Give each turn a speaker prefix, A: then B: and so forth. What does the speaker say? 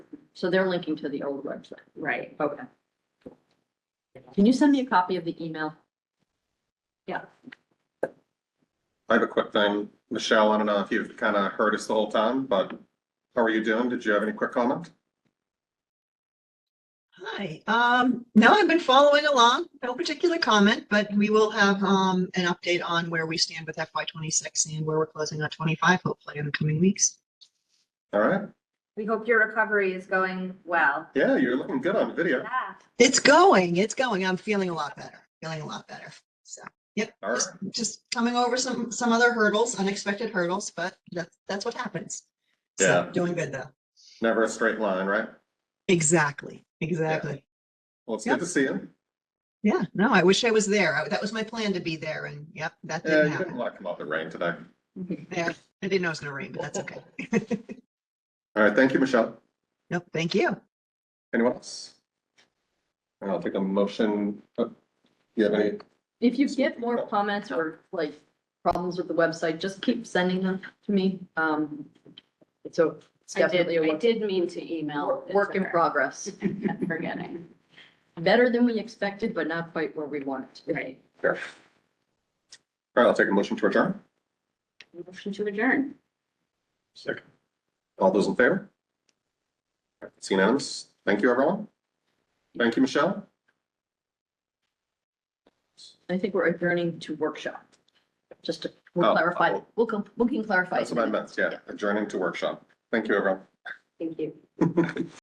A: So they're linking to the old website.
B: right.
A: Okay. Can you send me a copy of the email?
C: I have a quick thing. Michelle, I don't know if you've kind of heard us the whole time, but how are you doing? Did you have any quick comment?
D: Hi, um, no, I've been following along, no particular comment, but we will have, um, an update on where we stand with FY twenty-six and where we're closing on twenty-five, hopefully in the coming weeks.
C: All right.
B: We hope your recovery is going well.
C: Yeah, you're looking good on video.
B: Yeah.
D: It's going, it's going. I'm feeling a lot better, feeling a lot better. So, yep,
C: All right.
D: just, just coming over some, some other hurdles, unexpected hurdles, but that's, that's what happens. So,
C: Yeah.
D: Doing good though.
C: Never a straight line, right?
D: Exactly, exactly.
C: Well, it's good to see you.
D: Yeah, no, I wish I was there. I- That was my plan to be there and yep, that
C: Yeah, you
D: didn't
C: didn't
D: happen.
C: want to come out in the rain today.
D: Yeah, I didn't know it was gonna rain, but that's okay.
C: All right. Thank you, Michelle.
D: Nope, thank you.
C: Anyone else? I'll take a motion. Uh, You have any?
A: If you get more comments or like problems with the website, just keep sending them to me. Um, so it's
B: I did,
A: definitely a
B: I
A: work-
B: did mean to email.
A: work,
B: it
A: work
B: to
A: in
B: her.
A: progress.
B: Kept Forgetting.
A: Better than we expected, but not quite where we want it to be.
B: Right.
C: Sure. All right, I'll take a motion to adjourn.
B: Motion to adjourn.
C: Second. All those in favor? All right, It's unanimous. Thank you, everyone. Thank you, Michelle.
A: I think we're adjourning to workshop. Just to, we'll
C: Oh,
A: clarify,
C: oh.
A: we'll, com- we can clarify.
C: That's what I meant. Yeah, adjourning to workshop. Thank you, everyone.
B: Thank you.